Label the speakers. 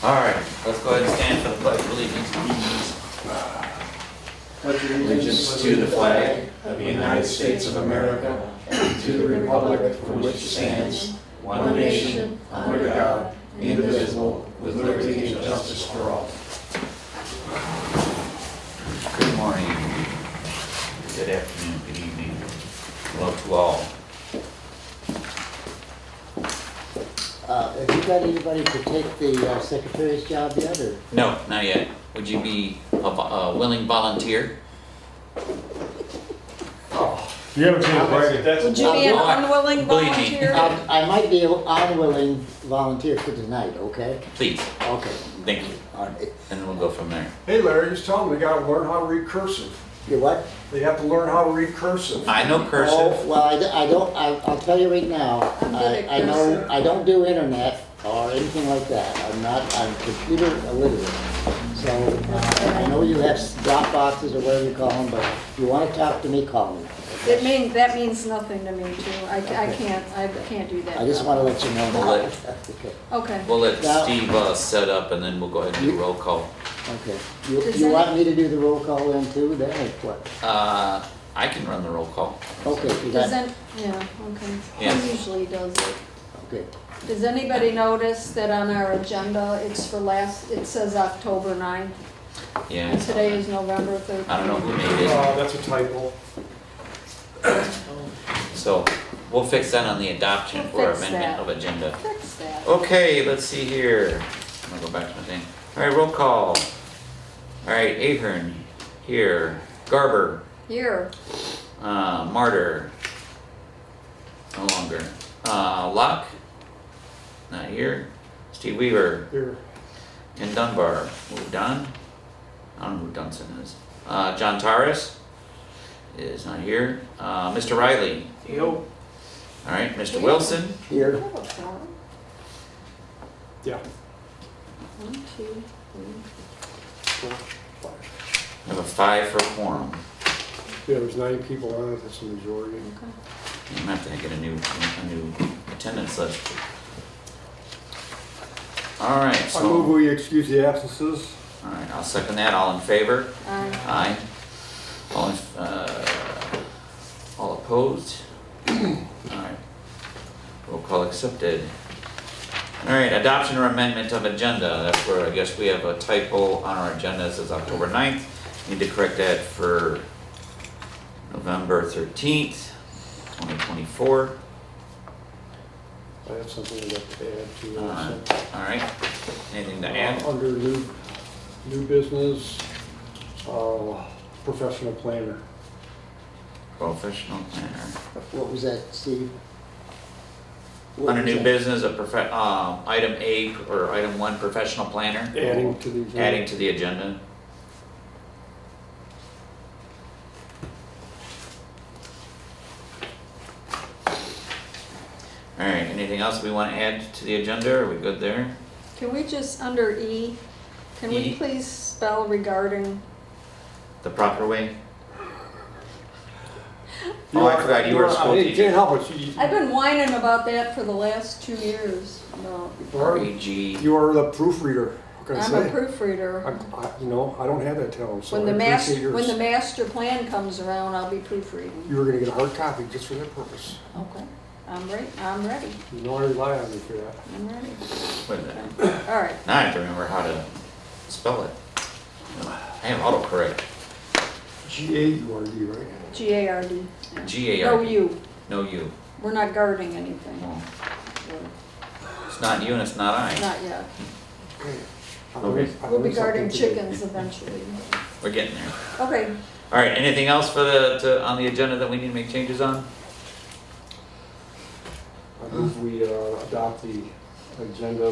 Speaker 1: All right, let's go ahead and stand for the pledge of allegiance.
Speaker 2: pledge
Speaker 3: allegiance to the flag of the United States of America and to the republic for which it stands, one nation, under God, indivisible, with liberty and justice for all.
Speaker 1: Good morning, good afternoon, good evening, hello to all.
Speaker 4: Uh, Have you got anybody to take the uh, secretary's job yet, or?
Speaker 1: No, not yet. Would you be a vo- a willing volunteer?
Speaker 5: You haven't seen it, right?
Speaker 6: Would you be an
Speaker 1: Well, I-
Speaker 6: unwilling
Speaker 1: believe me.
Speaker 6: volunteer?
Speaker 4: Um, I might be an unwilling volunteer for tonight, okay?
Speaker 1: Please,
Speaker 4: Okay,
Speaker 1: thank you,
Speaker 4: all right.
Speaker 1: and we'll go from there.
Speaker 3: Hey Larry, just tell them they gotta learn how to read cursive.
Speaker 4: You what?
Speaker 3: They have to learn how to read cursive.
Speaker 1: I know
Speaker 4: Oh,
Speaker 1: cursive,
Speaker 4: well, I d- I don't, I- I'll tell you right now,
Speaker 6: I'm good
Speaker 4: I
Speaker 6: at
Speaker 4: I know,
Speaker 6: cursing.
Speaker 4: I don't do internet or anything like that. I'm not, I'm computer illiterate. So uh, I know you have s- drop boxes or whatever you call them, but if you want to talk to me, call me.
Speaker 6: It mean, that means nothing to me too. I, I can't, I can't do that.
Speaker 4: I just want to let you know
Speaker 1: Well,
Speaker 4: that.
Speaker 1: it-
Speaker 4: Okay.
Speaker 6: Okay.
Speaker 1: we'll let
Speaker 4: Now-
Speaker 1: Steve uh, set up and then we'll go ahead and do roll call.
Speaker 4: Okay, you,
Speaker 6: Does
Speaker 4: you
Speaker 6: that-
Speaker 4: want me to do the roll call then too, then, or what?
Speaker 1: Uh, I can run the roll call.
Speaker 4: Okay, you
Speaker 6: Does
Speaker 4: got,
Speaker 6: an, yeah, okay.
Speaker 1: Yes.
Speaker 6: He usually does it.
Speaker 4: okay,
Speaker 6: Does anybody notice that on our agenda, it's for last, it says October 9th?
Speaker 1: Yeah,
Speaker 6: And today is November 13th.
Speaker 1: I don't know who made it,
Speaker 3: Uh, that's a typo.
Speaker 1: so we'll fix that on the adoption
Speaker 6: We'll
Speaker 1: for
Speaker 6: fix
Speaker 1: amendment
Speaker 6: that.
Speaker 1: of agenda.
Speaker 6: Fix that.
Speaker 1: Oh. Okay, let's see here. I'm gonna go back to my thing. All right, roll call. All right, Ahern, here. Garber,
Speaker 6: Here,
Speaker 1: uh, Martyr. No longer. Uh, Locke, not here. Steve Weaver,
Speaker 3: Here,
Speaker 1: Ken Dunbar, moved on. I don't know who Dunson is. Uh, John Torres is not here. Uh, Mr. Riley.
Speaker 3: Yo.
Speaker 1: All right, Mr. Wilson.
Speaker 6: I
Speaker 4: here,
Speaker 6: have a form.
Speaker 3: yeah.
Speaker 6: One, two, three.
Speaker 1: I have a five for quorum.
Speaker 3: Yeah, there's nine people on it, that's the majority.
Speaker 6: Okay.
Speaker 1: I'm gonna have to get a new, a new attendance list. All right,
Speaker 3: I move
Speaker 1: so, all
Speaker 3: we excuse the absences.
Speaker 1: right, I'll second that, all in favor?
Speaker 6: Aye.
Speaker 1: Aye. All, in- uh, all opposed? All right, roll call accepted. All right, adoption or amendment of agenda, that's where I guess we have a typo on our agenda, it says October 9th. Need to correct that for November thirteenth, twenty twenty-four.
Speaker 3: I have something I'd like to add to
Speaker 1: Uh,
Speaker 3: that.
Speaker 1: All right, anything to add?
Speaker 3: Uh, Under new, new business, uh, professional planner.
Speaker 1: Professional planner.
Speaker 4: what was that, Steve? What
Speaker 1: Under
Speaker 4: was
Speaker 1: new
Speaker 4: that?
Speaker 1: business, a prof, um, item A or item one, professional planner,
Speaker 3: Adding to the. agenda.
Speaker 1: adding to the agenda. All right, anything else we want to add to the agenda? Are we good there?
Speaker 6: Can we just, under E, can we
Speaker 1: E.
Speaker 6: please spell regarding?
Speaker 1: The proper way?
Speaker 3: You
Speaker 1: Oh, I
Speaker 3: are-
Speaker 1: forgot you were a
Speaker 3: are-
Speaker 1: school
Speaker 3: I
Speaker 1: teacher.
Speaker 3: Can't help it, you,
Speaker 6: I've been whining about that for the last two years. No,
Speaker 3: you are-
Speaker 1: REG.
Speaker 3: you are the proofreader, what can I
Speaker 6: I'm
Speaker 3: say?
Speaker 6: a proofreader.
Speaker 3: I'm- I, you know, I don't have that talent, so
Speaker 6: When
Speaker 3: I
Speaker 6: the
Speaker 3: appreciate
Speaker 6: master, when the
Speaker 3: yours.
Speaker 6: master plan comes around, I'll be proofreading.
Speaker 3: You were gonna get a hard copy just for that purpose.
Speaker 6: Okay, I'm ready, I'm ready,
Speaker 3: You know I rely on you for that.
Speaker 6: I'm ready.
Speaker 1: Wait a minute.
Speaker 6: All right,
Speaker 1: Now I have to remember how to spell it. I have autocorrect.
Speaker 3: G A U R D, right?
Speaker 6: G A R D.
Speaker 1: G A R.
Speaker 6: No, you,
Speaker 1: No you.
Speaker 6: we're not guarding anything.
Speaker 1: Well,
Speaker 6: We're-
Speaker 1: It's not you and it's not I.
Speaker 6: Not yet.
Speaker 3: Okay. I
Speaker 1: Okay.
Speaker 3: learned- I
Speaker 6: We'll be
Speaker 3: learned
Speaker 6: guarding
Speaker 3: something today.
Speaker 6: chickens eventually.
Speaker 1: We're getting there.
Speaker 6: Okay,
Speaker 1: All right, anything else for the, to, on the agenda that we need to make changes on?
Speaker 3: I move we uh, adopt the agenda